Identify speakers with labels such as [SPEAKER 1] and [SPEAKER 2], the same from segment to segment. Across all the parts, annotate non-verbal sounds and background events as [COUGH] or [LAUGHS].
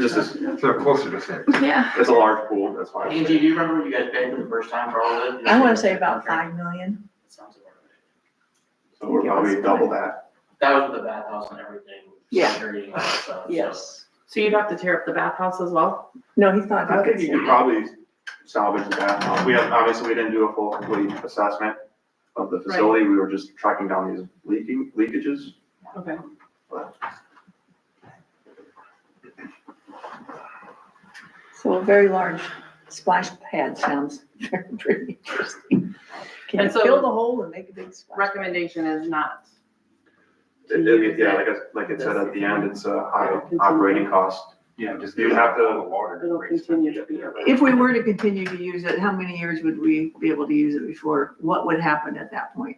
[SPEAKER 1] just as,
[SPEAKER 2] So closer to six.
[SPEAKER 3] Yeah.
[SPEAKER 1] it's a large pool, that's why.
[SPEAKER 4] Angie, do you remember when you guys paid for the first time for all of it?
[SPEAKER 3] I wanna say about five million.
[SPEAKER 4] Sounds about right.
[SPEAKER 1] So we're probably double that.
[SPEAKER 4] That was with the bathhouse and everything.
[SPEAKER 5] Yeah.
[SPEAKER 4] security and all that stuff, so.
[SPEAKER 5] Yes. So you'd have to tear up the bathhouse as well?
[SPEAKER 3] No, he's not.
[SPEAKER 1] I think you could probably salvage that. We have, obviously, we didn't do a full complete assessment of the facility. We were just tracking down these leaking, leakages.
[SPEAKER 5] Okay.
[SPEAKER 3] So a very large splash pad sounds [LAUGHS] very pretty interesting. Can you
[SPEAKER 5] And so-
[SPEAKER 3] fill the hole and make a big splash?
[SPEAKER 5] Recommendation is not. to
[SPEAKER 1] It- it-
[SPEAKER 5] use
[SPEAKER 1] Yeah,
[SPEAKER 5] it.
[SPEAKER 1] like I, like it said at the end, it's a high operating cost.
[SPEAKER 2] Yeah, just.
[SPEAKER 1] You'd have to-
[SPEAKER 2] The water.
[SPEAKER 5] It'll continue to be a-
[SPEAKER 3] If we were to continue to use it, how many years would we be able to use it before? What would happen at that point?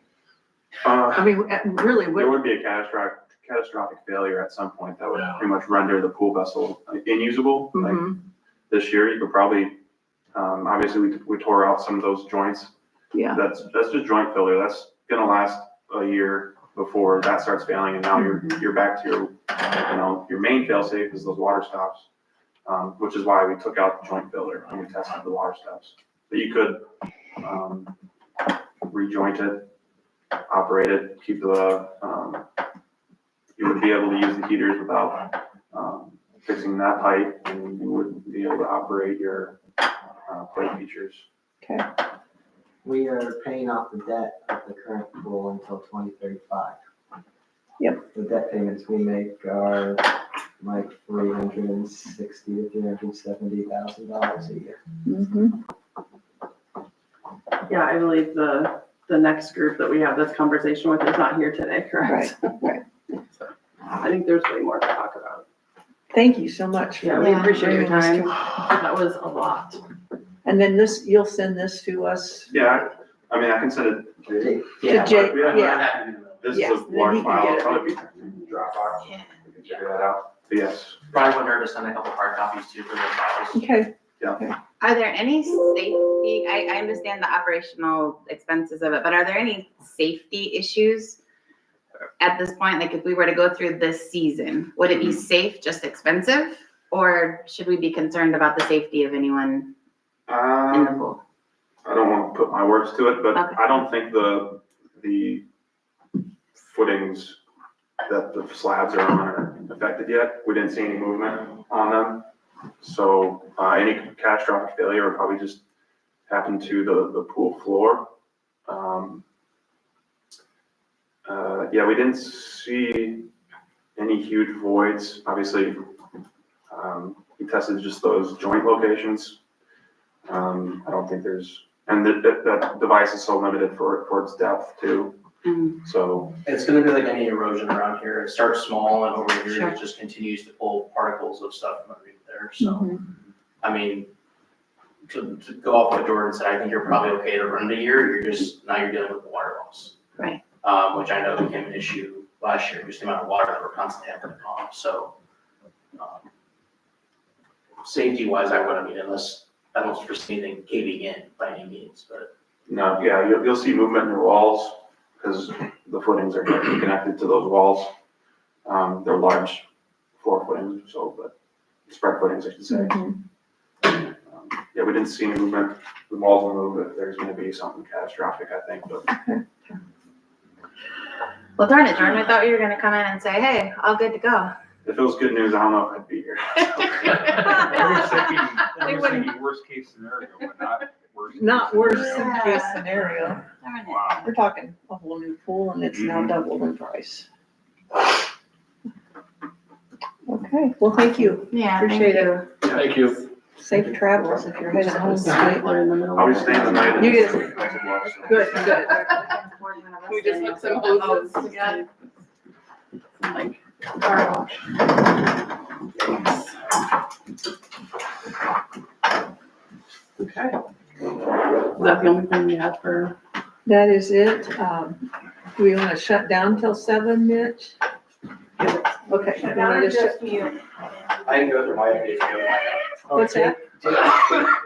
[SPEAKER 1] Uh,
[SPEAKER 3] I mean, at- really,
[SPEAKER 1] There
[SPEAKER 3] what,
[SPEAKER 1] would be a catastrophic, catastrophic failure at some point that would pretty much render the pool vessel inusable. Like,
[SPEAKER 3] Mhm,
[SPEAKER 1] this year, you could probably, um, obviously, we, we tore out some of those joints.
[SPEAKER 3] yeah,
[SPEAKER 1] That's, that's just joint failure. That's gonna last a year before that starts failing and now you're, you're back to your, you know, your main failsafe is those water stops. Um, which is why we took out the joint failure and we tested the water stops. But you could, um, rejoint it, operate it, keep the, um, you would be able to use the heaters without, um, fixing that pipe and you wouldn't be able to operate your, uh, plate features.
[SPEAKER 6] We are paying off the debt of the current pool until twenty thirty-five.
[SPEAKER 3] Yep.
[SPEAKER 6] The debt payments we make are like three hundred and sixty to three hundred and seventy thousand dollars a year.
[SPEAKER 3] mhm,
[SPEAKER 5] Yeah, I believe the, the next group that we have this conversation with is not here today,
[SPEAKER 3] right,
[SPEAKER 5] correct?
[SPEAKER 3] right.
[SPEAKER 5] I think there's way more to talk about.
[SPEAKER 3] Thank you so much. for
[SPEAKER 5] Yeah, we appreciate your
[SPEAKER 3] bringing this
[SPEAKER 5] time.
[SPEAKER 3] to-
[SPEAKER 5] That was a lot.
[SPEAKER 3] And then this, you'll send this to us?
[SPEAKER 1] Yeah, I I mean, I can send it to you.
[SPEAKER 3] To Jake,
[SPEAKER 1] Yeah.
[SPEAKER 3] yeah,
[SPEAKER 1] This is
[SPEAKER 3] Yes,
[SPEAKER 1] a
[SPEAKER 3] then he
[SPEAKER 1] large
[SPEAKER 3] can
[SPEAKER 1] file,
[SPEAKER 3] get
[SPEAKER 1] it'll
[SPEAKER 3] it.
[SPEAKER 1] probably be Dropbox. We can Figure that out. But Yes,
[SPEAKER 4] Probably wouldn't hurt to send a couple hard copies too for the files.
[SPEAKER 3] okay,
[SPEAKER 7] Are there any safety, I, I understand the operational expenses of it, but are there any safety issues at this point? Like if we were to go through this season, would it be safe, just expensive? Or should we be concerned about the safety of anyone in the
[SPEAKER 1] um,
[SPEAKER 7] pool?
[SPEAKER 1] I don't wanna put my words to it, but
[SPEAKER 7] Okay.
[SPEAKER 1] I don't think the, the footings that the slabs are on are affected yet. We didn't see any movement on them. So, uh, any catastrophic failure would probably just happen to the, the pool floor. Um, Uh, yeah, we didn't see any huge voids, obviously. Um, we tested just those joint locations. Um, I don't think there's, and that, that, that device is so limited for, for its depth too, mm-hmm.
[SPEAKER 7] Mm,
[SPEAKER 1] so,
[SPEAKER 4] It's gonna be like any erosion around here. It starts small and over here,
[SPEAKER 7] Sure.
[SPEAKER 4] it just continues to pull particles of stuff from underneath there,
[SPEAKER 3] Mm-hmm.
[SPEAKER 4] so. I mean, to, to go off what Jordan said, I think you're probably okay to run the year, you're just, now you're dealing with the water loss.
[SPEAKER 7] Right.
[SPEAKER 4] Um, which I know became an issue last year, just the amount of water that we're constantly having to pump, so. um, Safety wise, I wouldn't, I mean, unless, I don't foresee anything caving in by any means, but
[SPEAKER 1] no, yeah, you'll, you'll see movement in the walls, because the footings are connected to those walls. Um, they're large floor footings, so, but spread footings, I should say.
[SPEAKER 3] Mhm.
[SPEAKER 1] Um, Yeah, we didn't see any movement, the walls will move if there's gonna be something catastrophic, I think, but
[SPEAKER 7] Well, darn it, Jordan, I thought you were gonna come in and say, hey, all good
[SPEAKER 5] [LAUGHS]
[SPEAKER 7] to go. [LAUGHS]
[SPEAKER 1] if it was good news, I don't know if I'd be here.
[SPEAKER 2] [LAUGHS] Everyone's
[SPEAKER 5] [LAUGHS]
[SPEAKER 2] thinking, everyone's
[SPEAKER 7] wouldn't-
[SPEAKER 2] thinking worst case scenario, but not worst. case
[SPEAKER 3] not worst
[SPEAKER 2] scenario.
[SPEAKER 3] case scenario.
[SPEAKER 7] Darn it.
[SPEAKER 2] Wow.
[SPEAKER 3] We're talking a whole new pool and it's now
[SPEAKER 4] Mm-hmm.
[SPEAKER 1] Mhm.
[SPEAKER 3] doubled in price. Okay, well, thank you.
[SPEAKER 7] Yeah, thank
[SPEAKER 3] Appreciate it.
[SPEAKER 7] you.
[SPEAKER 4] Thank you.
[SPEAKER 3] Safe travels if you're headed home tonight.
[SPEAKER 5] We're in the middle of
[SPEAKER 1] I was staying the night. in
[SPEAKER 3] You get-
[SPEAKER 1] the council block, so-
[SPEAKER 3] Good, good.
[SPEAKER 5] We just hooked some hoses together. Like, car wash. Okay. Is that the only thing you had for?
[SPEAKER 3] That is it. Um, do we want to shut down till seven, Mitch? Okay. you wanna just shut-
[SPEAKER 4] I can go through my updates.
[SPEAKER 3] What's that?
[SPEAKER 4] [LAUGHS] I don't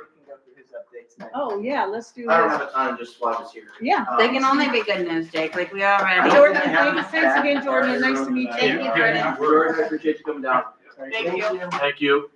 [SPEAKER 3] Oh, yeah, let's do
[SPEAKER 4] have
[SPEAKER 3] this.
[SPEAKER 4] a ton, just watch us here.
[SPEAKER 3] Yeah.
[SPEAKER 7] They can only be good news, Jake, like we
[SPEAKER 4] Um,
[SPEAKER 7] already.
[SPEAKER 3] Jordan,
[SPEAKER 4] I have
[SPEAKER 3] thanks-
[SPEAKER 4] them
[SPEAKER 3] thanks
[SPEAKER 4] back. Um,
[SPEAKER 3] again, Jordan. Nice to meet you.
[SPEAKER 7] Thank you,
[SPEAKER 4] Yeah,
[SPEAKER 7] Jordan.
[SPEAKER 4] Jordan, I appreciate you coming down.
[SPEAKER 7] Thank you.
[SPEAKER 4] Thank you.